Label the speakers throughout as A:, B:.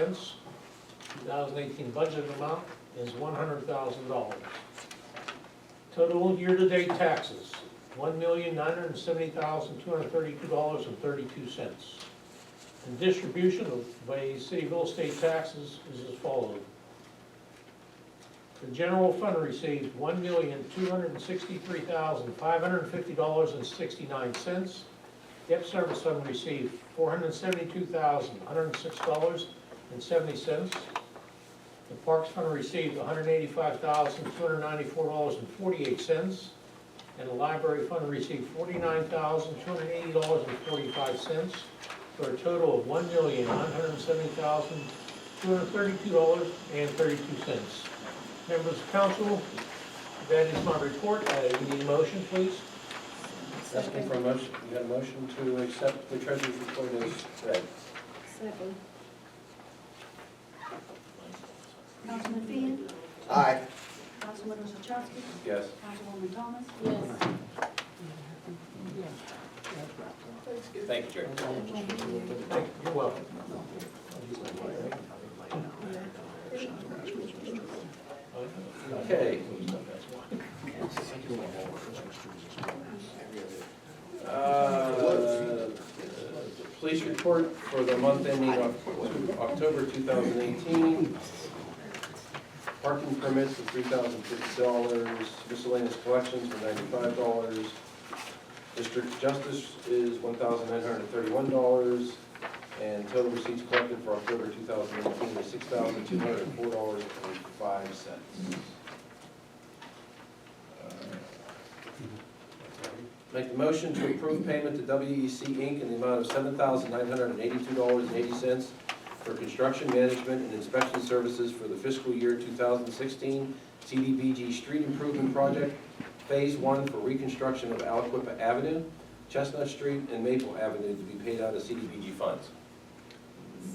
A: Expense, 2018 budget amount is $100,000. Total year-to-date taxes, $1,970,232.32. And distribution of, by city real estate taxes is as follows. The general fund receives $1,263,550.69. Debt service fund received $472,106 and seventy cents. The Parks Fund received hundred eighty-five thousand, two hundred ninety-four dollars and forty-eight cents. And the Library Fund received forty-nine thousand, two hundred eighty dollars and forty-five cents, for a total of one million, nine hundred seventy thousand, two hundred thirty-two dollars and thirty-two cents. Members of council, that is my report. Uh, you need a motion, please?
B: Asking for a motion, you got a motion to accept the treasurer's report as read.
C: Second. Councilman Finn,
B: Aye.
C: Councilman Orzachowski,
B: Yes.
C: Councilwoman Thomas. Yes.
B: Thank you, Jerry.
A: Thank you. You're welcome.
B: Okay. Uh, Police report for the month ending Oc- October 2018. Parking permits for $3,050, miscellaneous collections for $95. District justice is $1,931. And total receipts collected for October 2018 is $6,204.05. Make the motion to approve payment to WEC Inc. in the amount of $7,982.80 for construction management and inspection services for the fiscal year 2016 CDBG Street Improvement Project, Phase 1 for reconstruction of Aliquippa Avenue, Chestnut Street, and Maple Avenue to be paid out of CDBG funds.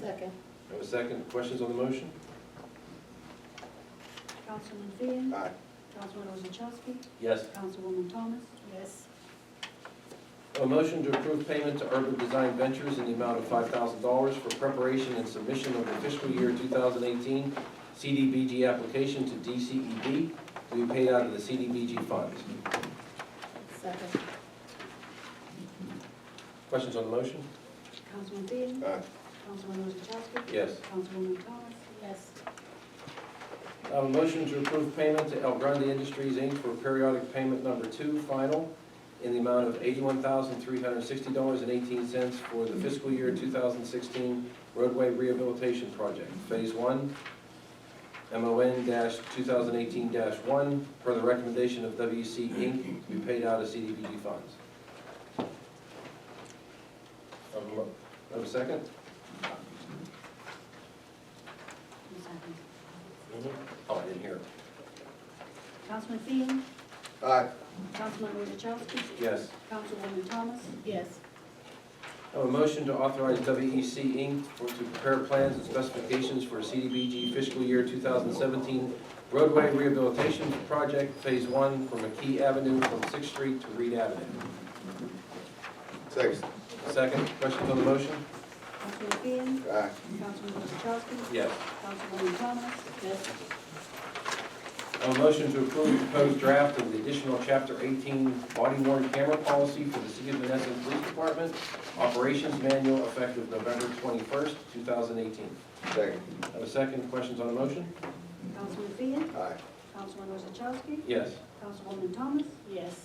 C: Second.
B: Have a second, questions on the motion?
C: Councilman Finn,
B: Aye.
C: Councilman Orzachowski,
B: Yes.
C: Councilwoman Thomas. Yes.
B: A motion to approve payment to Urban Design Ventures in the amount of $5,000 for preparation and submission of the fiscal year 2018 CDBG application to DCED to be paid out of the CDBG funds.
C: Second.
B: Questions on the motion?
C: Councilman Finn,
B: Aye.
C: Councilman Orzachowski.
B: Yes.
C: Councilwoman Thomas. Yes.
B: I have a motion to approve payment to El Grande Industries, Inc. for periodic payment number two, final, in the amount of $81,360.18 for the fiscal year 2016 roadway rehabilitation project, Phase 1, MON-2018-1, per the recommendation of WC Inc., to be paid out of CDBG funds. Have a mo- have a second?
C: Second.
B: Oh, I didn't hear.
C: Councilman Finn,
B: Aye.
C: Councilman Orzachowski,
B: Yes.
C: Councilwoman Thomas. Yes.
B: I have a motion to authorize WEC Inc. for- to prepare plans and specifications for CDBG fiscal year 2017 roadway rehabilitation project, Phase 1, from McKee Avenue from 6th Street to Reed Avenue.
D: Second.
B: Second, questions on the motion?
C: Councilman Finn,
D: Aye.
C: Councilman Orzachowski.
B: Yes.
C: Councilwoman Thomas. Yes.
B: I have a motion to approve the proposed draft of the additional Chapter 18 body worn camera policy for the City of Menneson Police Department Operations Manual effective November 21st, 2018.
D: Second.
B: I have a second, questions on the motion?
C: Councilman Finn,
D: Aye.
C: Councilman Orzachowski,
B: Yes.
C: Councilwoman Thomas. Yes.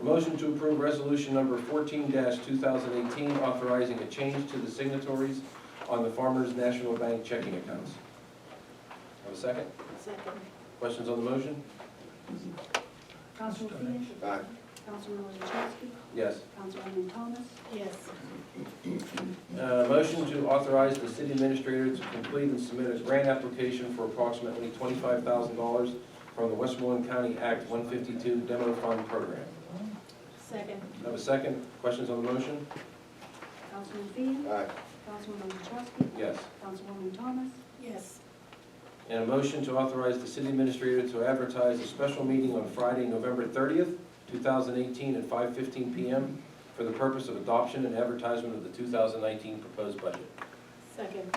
B: A Motion to approve resolution number fourteen two thousand eighteen, authorizing a change to the signatories on the Farmers National Bank checking accounts. Have a second?
C: Second.
B: Questions on the motion?
C: Councilman Finn,
D: Aye.
C: Councilman Orzachowski,
B: Yes.
C: Councilwoman Thomas. Yes.
B: Uh, motion to authorize the city administrator to complete and submit a grant application for approximately twenty-five thousand dollars from the Westmoreland County Act one fifty-two Demo Fund Program.
C: Second.
B: Have a second? Questions on the motion?
C: Councilman Finn,
D: Aye.
C: Councilman Orzachowski,
B: Yes.
C: Councilwoman Thomas. Yes.
B: And a motion to authorize the city administrator to advertise a special meeting on Friday, November 30th, 2018, at 5:15 PM for the purpose of adoption and advertisement of the 2019 proposed budget.
E: Second.